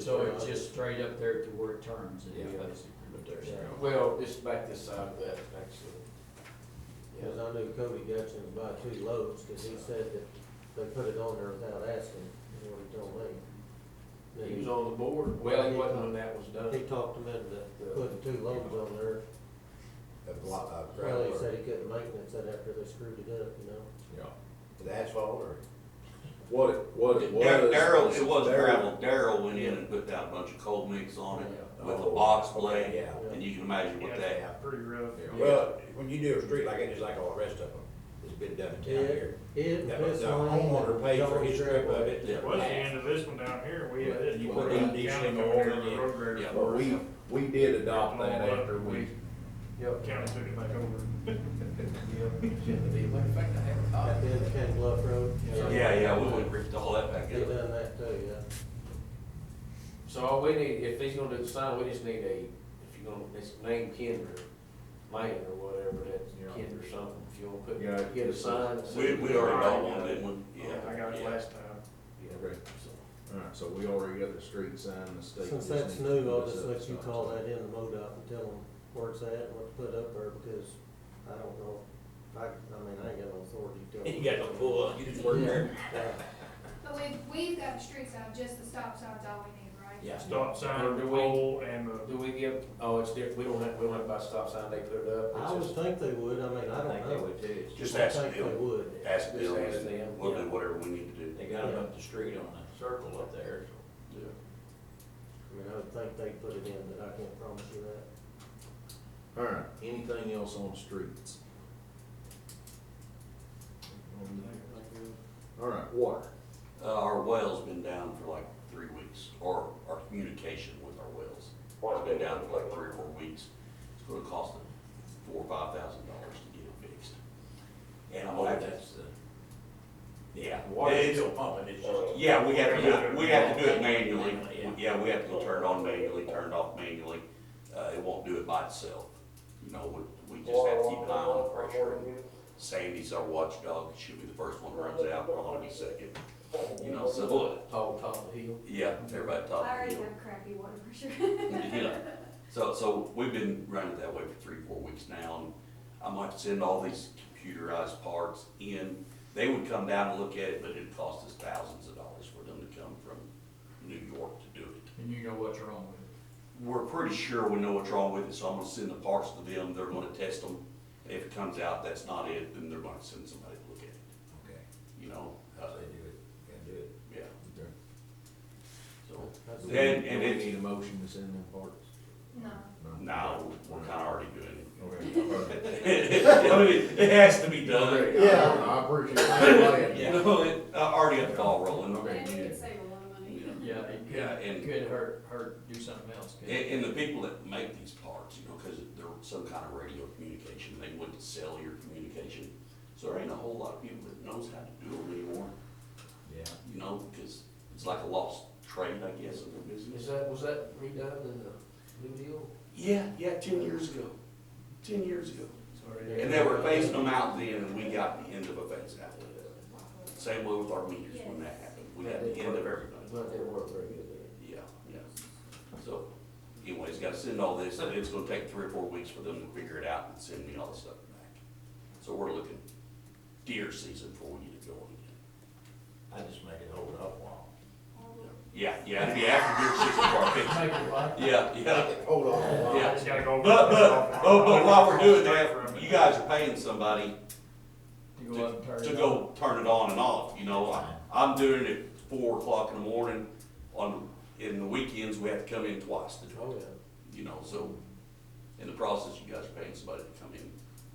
So it's just straight up there to where it turns, is Yeah. basically what they're saying. Well, just back this side of that, actually. Because I knew Cody Gutson was buying two loads, because he said that they put it on there without asking, is what he told me. He was Then on the board, Well, well, he he wasn't was. when that was He done. talked him into putting two loads on there, of blo- of uh, gravel well, he or said he couldn't maintenance it after they screwed it up, you know? Yeah. the asphalt or? What it, what it was. Daryl, it was Darryl- gravel, Daryl went in and put down a bunch of cold mix on it with a Oh, box blade, Yeah. and you can imagine what that, Yeah. pretty rough. Well, when you do a street like that, just like all the rest of them, it's been done in town Yeah. here. It, The the and this line. homeowner paid for his strip of it. Yeah. Well, that's the end of this one down here, we had this. You tore put up in down E additional there, order, the yeah. road grader Yeah, tore But it we, up. we did adopt that All up, after we, Yep. County took it back over. Matter of fact, I haven't thought At of the it. end of Ken Bluff Road. yeah, yeah, we would rip all that back They up. done that too, yeah. So all we need, if he's gonna do the sign, we just need a, if you're gonna, it's named Kinder, man or whatever, that's Yeah. Kinder something, if you wanna Yeah. put, get a sign. so- We, we already got one, didn't we? Yeah. I got it yeah. last time. Yeah. Okay. So- alright, so we already got the street sign, the state. just Since that's needs to new, I'll put us just up let you a call stop that in to MoDOT and tell them where it's at and what to put up there, because I don't know, I, I mean, I ain't got no authority to. tell You got no pull up, you just work there. Yeah. But we, we've got the street sign, just the stop sign's all we need, right? Yeah. Stop Or sign, do we- pole, and the Do we give, oh, it's different, we don't have, we don't have to buy a stop sign, they put it up. I It's would just- think they would, I mean, I I don't think they know. would too. Just I ask think they Bill, would. ask Bill, Just ask them. we'll do whatever we need to do. They got 'em up the street on a circle up there. Yeah. I mean, I would think they'd put it in, but I can't promise you that. Alright, anything else on streets? Alright, water. Uh, our well's been down for like three weeks, or our communication with our wells. It's been down for like three or four weeks. It's gonna cost them four or five thousand dollars to get it fixed. And I'm Oh, like, that's the. yeah. Water's it's- still pumping, it's just. Yeah, we have to do it, we have to do it manually. Yeah, we have to go turn it on manually, turn it off manually. Uh, it won't do it by itself. You know, we, we just have to keep an eye on the pressure. And Sandy's our watchdog. She'll be the first one who runs out, I'll be second. You know, so, Tall, top of the hill. yeah, everybody I talking. already have crappy water pressure. Yeah, so, so we've been running it that way for three, four weeks now, and I'm like, send all these computerized parts in. They would come down and look at it, but it'd cost us thousands of dollars for them to come from New York to do it. And you know what's wrong with it. We're pretty sure we know what's wrong with it, so I'm gonna send the parts to them, they're gonna test them. And if it comes out that's not it, then they're gonna send somebody to look at it, Okay, you know? how Uh, they do it, gotta do it. Yeah, so, That's- Do we- And- do and we it's- Need a motion to send them parts? No, no, we're kinda already doing Okay, alright. it. It has to be done. Okay, I- Yeah. I appreciate it. You know, it, I already got the ball rolling. Okay. and we could save a lot of money. Yeah, it Yeah, could, and- it could hurt, hurt, do something else, could And, and the people that make these parts, you know, because they're some kind of radio communication, they wouldn't sell your communication. So there ain't a whole lot of people that knows how to do them anymore, Yeah. you know, because it's like a lost trade, I guess, of the Is business. that, was that redone in the new deal? Yeah, yeah, ten years ago, ten years ago. Sorry. And they were phasing them out then, and we got the end of a phase out. Same way with our meters when that happened, we got the end of everybody. But they weren't very good there. Yeah, yeah. So anyways, gotta send all this, and it's gonna take three or four weeks for them to figure it out and send me all the stuff back. So we're looking deer season before we get it going again. I just make it hold up long. Yeah, yeah, it'll be after deer season before I fix Make it like- it. Yeah, yeah, Hold on. yeah. It's gotta go. But, but, oh, but while we're doing that, you guys are paying somebody To to, go up and turn it to on. go turn it on and off, you know, I, I'm doing it four o'clock in the morning. On, in the weekends, we have to come in twice to do it. Oh, yeah. you know, so in the process, you guys are paying somebody to come in.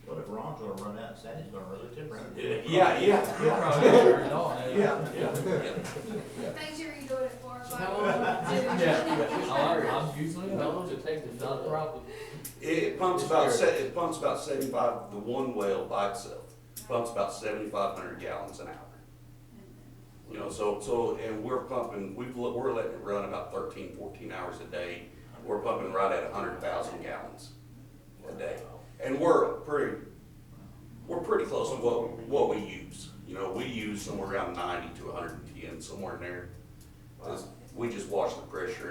Well, if Ron's gonna run out, Sandy's gonna really tip around. Yeah, yeah, You'll probably turn it on, eh? yeah, yeah. Make sure you do it at four or How long? five. I'm, I'm usually How not, long does it take to not a fill problem. It, it pumps about, se- it pumps about seventy-five, the one well by itself, pumps about seventy-five hundred gallons an hour. You know, so, so, and we're pumping, we've, let- we're letting it run about 13, 14 hours a day. We're pumping right at hundred thousand gallons a day. And we're pretty, we're pretty close to what, what we use. You know, we use somewhere around ninety to hundred and ten, somewhere in there. Just- We just watch the pressure and